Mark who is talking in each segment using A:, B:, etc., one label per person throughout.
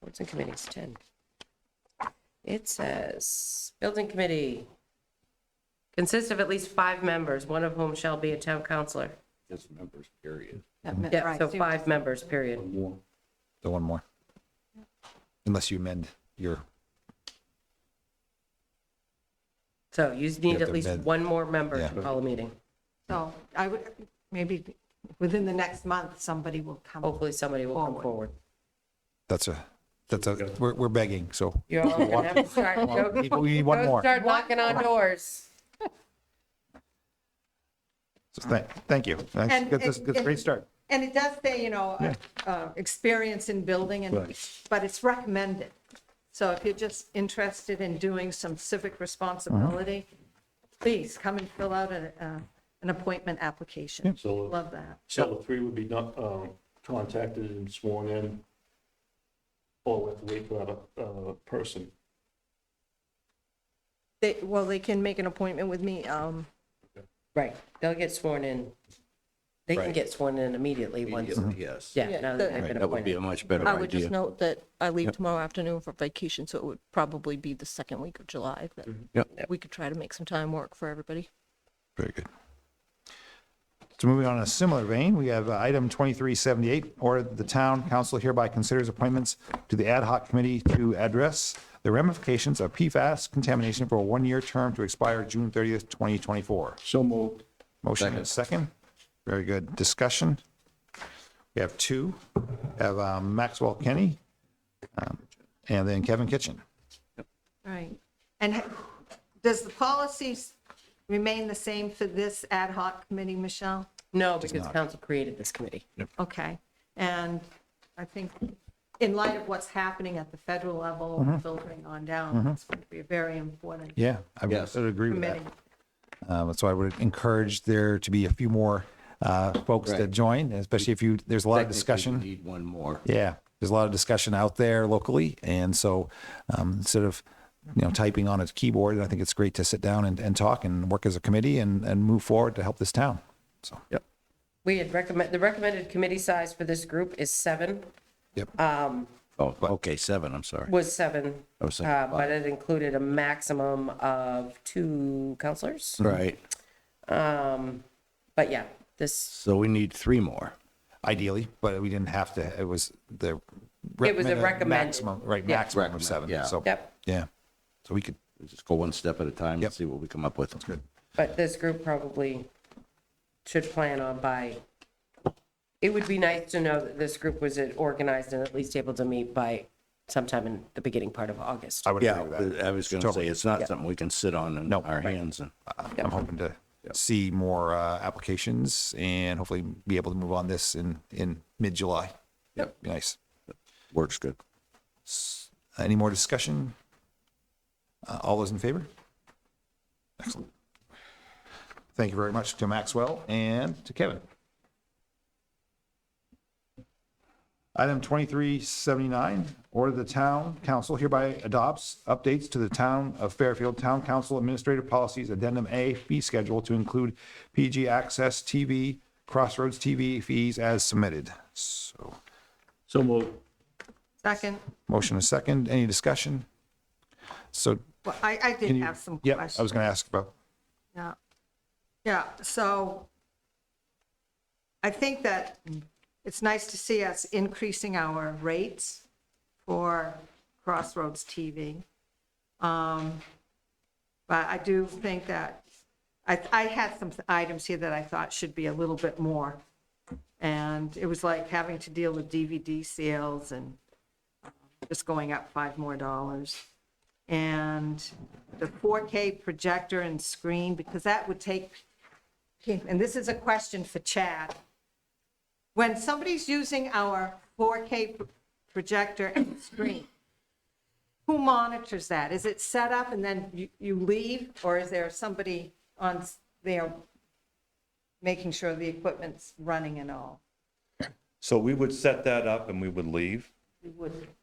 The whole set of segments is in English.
A: Boards and committees, 10. It says, building committee consists of at least five members, one of whom shall be a town councillor.
B: Just members, period.
C: That meant-
A: Yeah,
C: right,
A: so
C: so you
A: five members, period.
B: One more.
D: The one more. Unless you amend your,
A: So you need
D: have
A: at
D: to
A: least
D: amend.
A: one more member to
D: Yeah.
A: call a meeting.
C: So I would, maybe within the next month, somebody will come.
A: Hopefully, somebody will come
C: Forward.
A: forward.
D: that's a, that's a, we're, we're begging, so.
A: You're all gonna have to start, go-
D: People, we need one
A: go
D: more.
A: start knocking on doors.
D: So thank, thank you. That's,
C: And-
D: that's, that's a great
C: and-
D: start.
C: And it does say, you know,
D: Yeah.
C: uh, experience in building and,
D: Right.
C: but it's recommended. So if you're just interested in doing some civic responsibility,
D: Uh-huh.
C: please come and fill out a, uh, an appointment application.
E: So,
C: Love that.
E: so the three would be not, um, contacted and sworn in. Or we have to wait for that, uh, person.
C: They, well, they can make an appointment with me. Um,
A: Right, they'll get sworn in. They can
B: Right.
A: get sworn in immediately once,
B: Immediately,
F: Mm-hmm.
B: Yes.
A: yeah, now that
F: the-
A: they've
B: Right,
A: been
B: That would be
A: appointed.
B: a much better
F: I would just
B: idea.
F: note that I leave tomorrow afternoon for vacation, so it would probably be the second week of July that
D: Yep.
F: we could try to make some time work for everybody.
D: Very good. So moving on in a similar vein, we have uh, item 2378, or the town council hereby considers appointments to the ad hoc committee to address the ramifications of PFAS contamination for a one-year term to expire June 30th, 2024.
B: So moved.
D: Motion and second. Very good. Discussion. We have two. We Have um, Maxwell Kenny um, and then Kevin Kitchen.
C: Right. And ha- does the policies remain the same for this ad hoc committee, Michelle?
A: No, because council created this committee.
C: Okay. And I think in light of what's happening at the federal level, filtering on down, it's going to be a very important
D: Mm-hmm. Yeah, I would
B: Yes.
D: sort of agree with that.
C: committee.
D: Um, So I would encourage there to be a few more uh, folks that
B: Right.
D: join, especially if you, there's a lot of discussion.
B: Technically, we Need one more.
D: Yeah, there's a lot of discussion out there locally, and so um, instead of you know typing on a keyboard, I think it's great to sit down and, and talk and work as a committee and, and move forward to help this town. So yep,
A: We had recommend, the recommended committee size for this group is seven,
D: yep,
A: Uh,
B: Oh, okay, seven, I'm sorry.
A: was seven.
B: I was thinking
A: uh, But
B: Oh, five.
A: it included a maximum of two counselors.
B: Right,
A: Um, But yeah, this,
B: so we need three more.
D: ideally, but we didn't have to. It was the
A: It was a recommended-
D: maximum, right?
A: yeah.
D: Maximum
B: Recommend,
D: of seven.
B: yeah.
D: So
A: Yep.
D: yeah, so we could
B: Let's Just go one step at a time
D: Yep.
B: and see what we come up with.
D: good.
A: but this group probably should plan on by, it would be nice to know that this group was organized and at least able to meet by sometime in the beginning part of August.
D: I would
B: Yeah,
D: agree with that.
B: I was gonna say,
D: Totally.
B: it's not something we can sit on in
D: No.
B: our
D: Right. Uh,
B: hands and.
D: I'm hoping to see more uh, applications and hopefully be able to move on this in in mid July.
B: Yep.
D: Be nice.
B: Works good.
D: Any more discussion? Uh, All those in favor? Excellent. Thank you very much to Maxwell and to Kevin. Item 2379, order the town council hereby adopts updates to the town of Fairfield Town Council Administrative Policies Addendum A fee schedule to include PG Access TV, Crossroads TV fees as submitted. So
E: So moved.
C: Second,
D: motion a second. Any discussion? So
C: well, I, I did
D: Can you-
C: have some
D: Yep,
C: questions.
D: I was going to ask about,
C: Yeah. Yeah, so I think that it's nice to see us increasing our rates for Crossroads TV. Um, But I do think that, I, I had some items here that I thought should be a little bit more. And it was like having to deal with DVD sales and just going up five more dollars and the 4K projector and screen, because that would take, and this is a question for Chad. When somebody's using our 4K pr- projector and screen, who monitors that? Is it set up and then you, you leave, or is there somebody on s- there making sure the equipment's running and all?
G: So we would set that up and we would leave.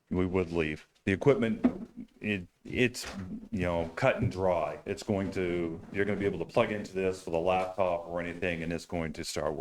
G: We would leave. The equipment, it, it's, you know, cut and dry. It's going to, you're gonna be able to plug into this with a laptop or anything and it's going to start